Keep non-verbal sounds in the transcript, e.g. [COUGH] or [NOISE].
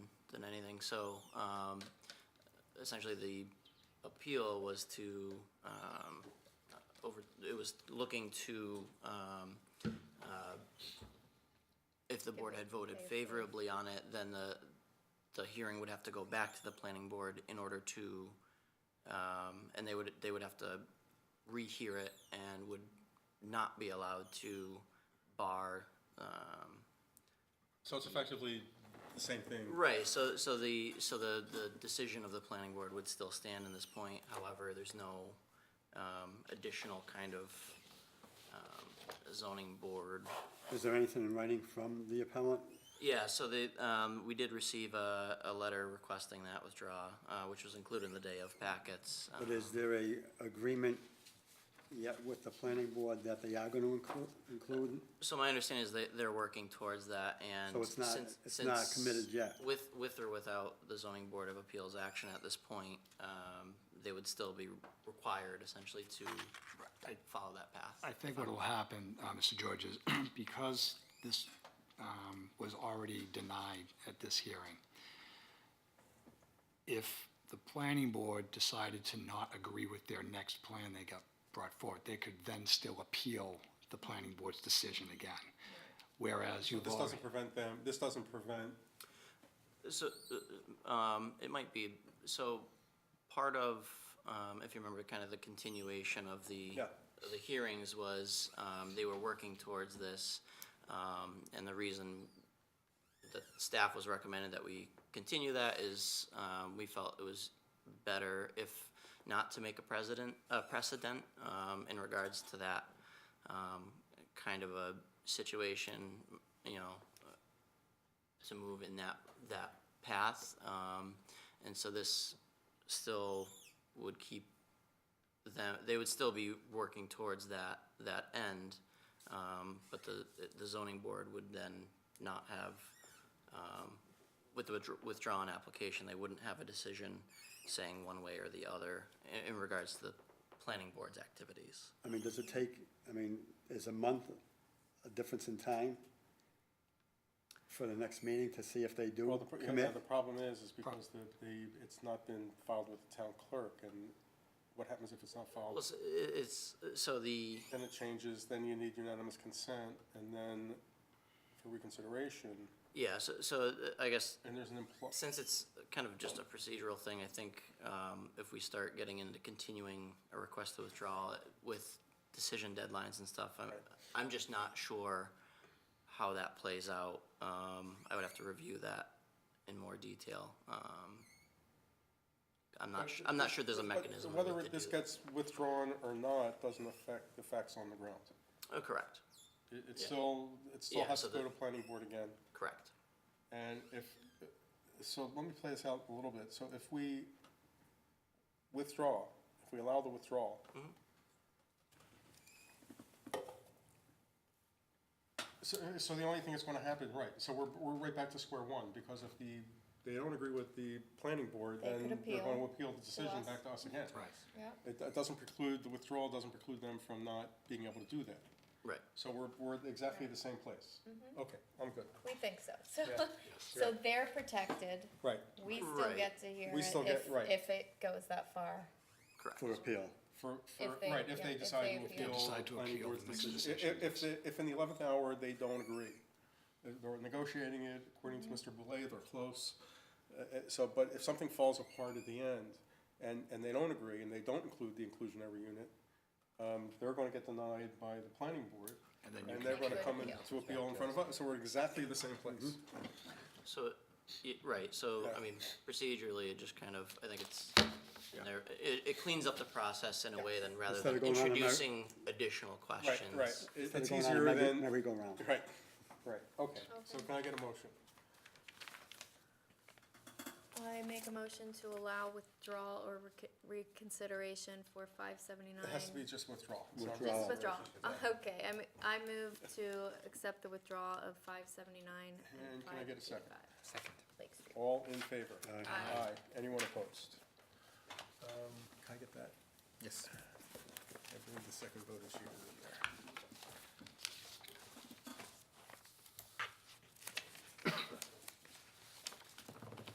hearing, so um, essentially the appeal was to, um, uh, over, it was looking to, um, uh, if the board had voted favorably on it, then the, the hearing would have to go back to the planning board in order to, um, and they would, they would have to rehear it and would not be allowed to bar, um, So it's effectively the same thing. Right, so, so the, so the, the decision of the planning board would still stand in this point, however, there's no, um, additional kind of, um, zoning board. Is there anything in writing from the appellant? Yeah, so the, um, we did receive a, a letter requesting that withdraw, uh, which was included in the day of packets. But is there a agreement yet with the planning board that they are gonna include, include? So my understanding is that they're working towards that and. So it's not- since- it's not since committed yet? With, with or without the zoning board of appeals action at this point, um, they would still be required essentially to follow that path. I think what will happen, uh, Mr. George, is [CLEARS THROAT] because this um, was already denied at this hearing, if the planning board decided to not agree with their next plan they got brought forward, they could then still appeal the planning board's decision again. Whereas you've This already, doesn't prevent them, this doesn't prevent, So, uh, um, it might be, so part of, um, if you remember, kind of the continuation of the, Yeah. of the hearings was, um, they were working towards this. Um, and the reason that staff was recommended that we continue that is, um, we felt it was better if not to make a precedent, a precedent, um, in regards to that, um, kind of a situation, you know, to move in that, that path. Um, and so this still would keep them, they would still be working towards that, that end. Um, but the, the zoning board would then not have, um, with the withdraw- withdrawn application, they wouldn't have a decision saying one way or the other in, in regards to the planning board's activities. I mean, does it take, I mean, is a month a difference in time for the next meeting to see if they well, do the, pro- yeah, commit? the problem is, is because the, the, it's not been filed with the town clerk, and what happens if it's not Well, filed? it's- it's, so the. Then it changes, then you need unanimous consent, and then for reconsideration, Yeah, so, so uh, I guess and there's an impl- since it's kind of just a procedural thing, I think um, if we start getting into continuing a request to withdraw with decision deadlines and stuff, I'm, I'm just not sure how that plays out. Um, I would have to review that in more detail. Um, I'm not, su- I'm not sure there's a But mechanism. Whether to it- this do- gets withdrawn or not, doesn't affect the facts on the ground. Oh, correct, It, it Yeah. still, it still Yeah, has so to go the- to planning board again. correct. And if, so let me play this out a little bit. So if we withdraw, if we allow the withdrawal, so, so the only thing that's gonna happen, right, so we're, we're right back to square one, because if the, they don't agree with the planning board, They could then they're appeal gonna appeal the decision us. back to us again. right, Yep. It, it doesn't preclude, the withdrawal doesn't preclude them from not being able to do that. Right, So we're, we're exactly the same place. Mm-hmm. Okay, I'm good. We think so. [LAUGHS] So, Yeah. so they're protected. Right. We still Right. get to hear We it still get- if, right. if it goes that far. correct. For appeal? For, for, If they- right, if yeah, they if decide they to appeal. appeal. Decide to planning appeal board's the next decision. I- decision. If, the- if in the eleventh hour, they don't agree, they're- they're negotiating it, according to Mm-hmm. Mr. Belay, they're close. Uh, uh, So, but if something falls apart at the end, and, and they don't agree, and they don't include the inclusionary unit, um, they're gonna get denied by the planning board, And then you and can they're gonna appeal. come in to appeal in front of us, so we're exactly the same place. Mm-hmm. So, y- right, so, Yeah. I mean, procedurally, it just kind of, I think it's, there- it, it cleans up the process in a way then, rather Instead than of going on and on. introducing additional Right, questions. right, It- it's Instead of going easier on a merry- than, Merry-go-round. right, right, okay, so can I get a motion? I make a motion to allow withdrawal or rec- reconsideration for five seventy-nine. It has to be just withdrawal. It's not- Withdrawal. Just withdrawal. Oh, Okay, I, m- I move to accept the withdrawal of five seventy-nine and And can I five get a second? eighty-five. Second. Lake Street. All in favor? Aye. Anyone opposed? Um, Can I get that? Yes. I believe the second vote is you.